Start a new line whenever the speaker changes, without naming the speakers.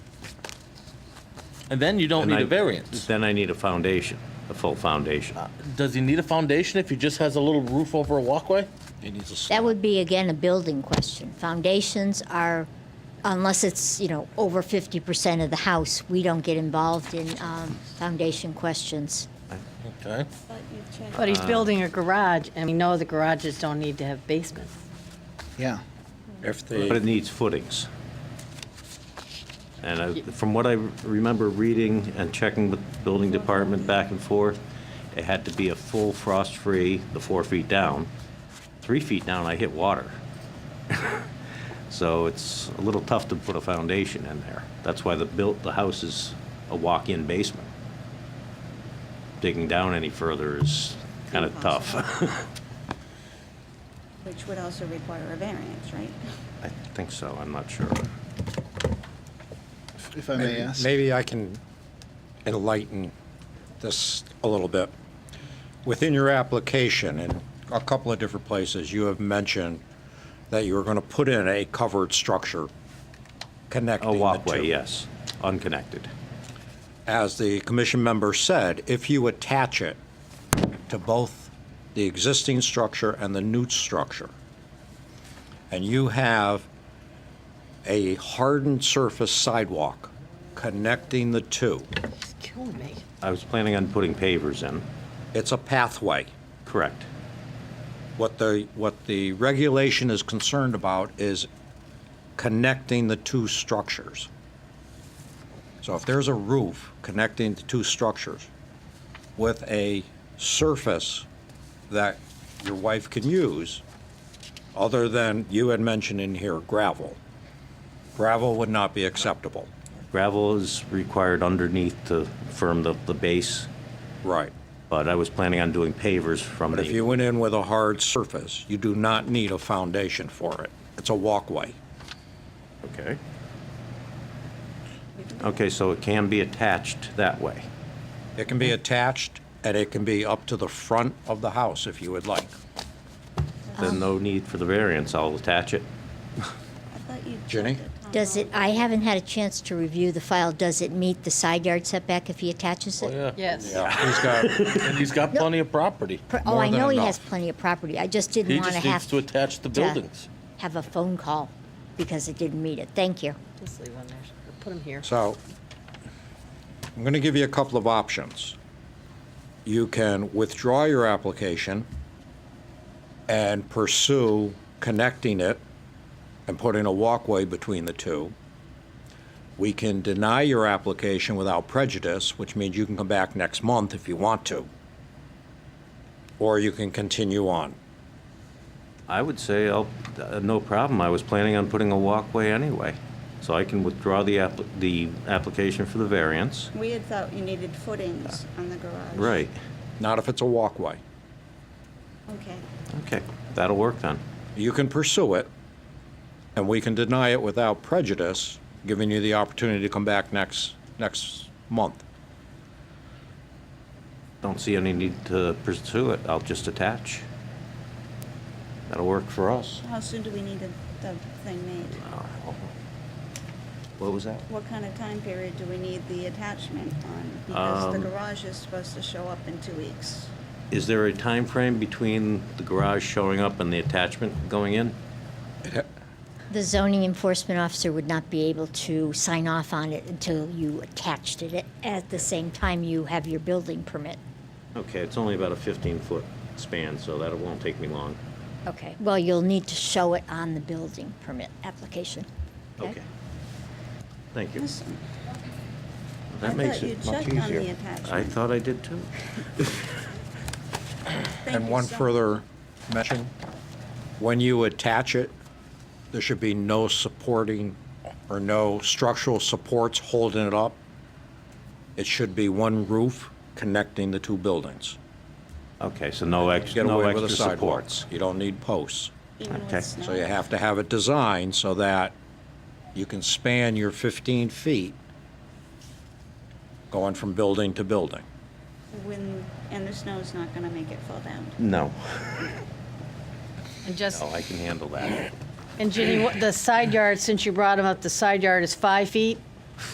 And then you don't
And
need
I-
a variance. Ah,
Then I need a foundation, a full foundation.
Does he need a foundation if he just has a little roof over a walkway?
It needs a
That
slab.
would be, again, a building question. Foundations are, unless it's, you know, over 50% of the house, we don't get involved in um, foundation questions.
Okay.
But he's building a garage, and we know the garages don't need to have basements.
Yeah.
If
But it
they,
needs footings. And I- from what I remember reading and checking with the building department back and forth, it had to be a full frost-free, the four feet down. Three feet down, I hit water. So it's a little tough to put a foundation in there. That's why the built, the house is a walk-in basement. Digging down any further is kind of tough.
Which would also require a variance, right?
I think so, I'm not sure.
If I may ask.
maybe I can enlighten this a little bit. Within your application, in a couple of different places, you have mentioned that you were going to put in a covered structure connecting
A
the two.
walkway, yes, unconnected.
as the commission member said, if you attach it to both the existing structure and the new structure, and you have a hardened surface sidewalk connecting the two,
It's killing me.
I was planning on putting pavers in,
it's a pathway.
correct.
What the, what the regulation is concerned about is connecting the two structures. So if there's a roof connecting the two structures with a surface that your wife can use, other than, you had mentioned in here gravel, gravel would not be acceptable.
Gravel is required underneath to firm the, the base,
Right.
but I was planning on doing pavers from
But if you
the,
went in with a hard surface, you do not need a foundation for it. It's a walkway.
okay? Okay, so it can be attached that way.
It can be attached, and it can be up to the front of the house if you would like.
Then no need for the variance, I'll attach it.
I thought you.
Jenny?
Does it, I haven't had a chance to review the file, does it meet the side yard setback if he attaches it?
Oh,
Yes.
He's got,
And he's got plenty of property.
Pr- Oh,
more
I
than
know he
enough.
has plenty of property, I just didn't
He
want to
just
have
needs to
to
attach the buildings.
have a phone call because it didn't meet it. Thank you.
Just leave one there. Put him here.
so, I'm going to give you a couple of options. You can withdraw your application and pursue connecting it and putting a walkway between the two. We can deny your application without prejudice, which means you can come back next month if you want to. Or you can continue on.
I would say, I'll, uh, no problem, I was planning on putting a walkway anyway. So I can withdraw the app, the application for the variance.
We had thought you needed footings on the garage.
Right,
Not if it's a walkway.
Okay.
okay, that'll work then.
You can pursue it, and we can deny it without prejudice, giving you the opportunity to come back next, next month.
Don't see any need to pursue it, I'll just attach. That'll work for us.
How soon do we need the, the thing made?
What was that?
What kind of time period do we need the attachment on? Because the
Um,
garage is supposed to show up in two weeks.
Is there a time frame between the garage showing up and the attachment going in?
The zoning enforcement officer would not be able to sign off on it until you attached it at the same time you have your building permit.
Okay, it's only about a 15-foot span, so that won't take me long.
Okay. Well, you'll need to show it on the building permit application.
Okay. Thank you.
Listen, I
That makes
thought you
it much
checked on the
easier. I
attachment.
thought I did too.
Thank
And
you
one
so
further mention, when you attach it, there should be no supporting or no structural supports holding it up. It should be one roof connecting the two buildings.
Okay, so no extra,
Get
no
away with
extra
a sidewalk.
supports.
You don't need posts.
even with
okay.
snow.
So you have to have it designed so that you can span your 15 feet going from building to building.
When, and the snow's not gonna make it fall down.
No.
And just,
No, Oh, I can handle that.
and Ginny, what- the side yard, since you brought him up, the side yard is five feet?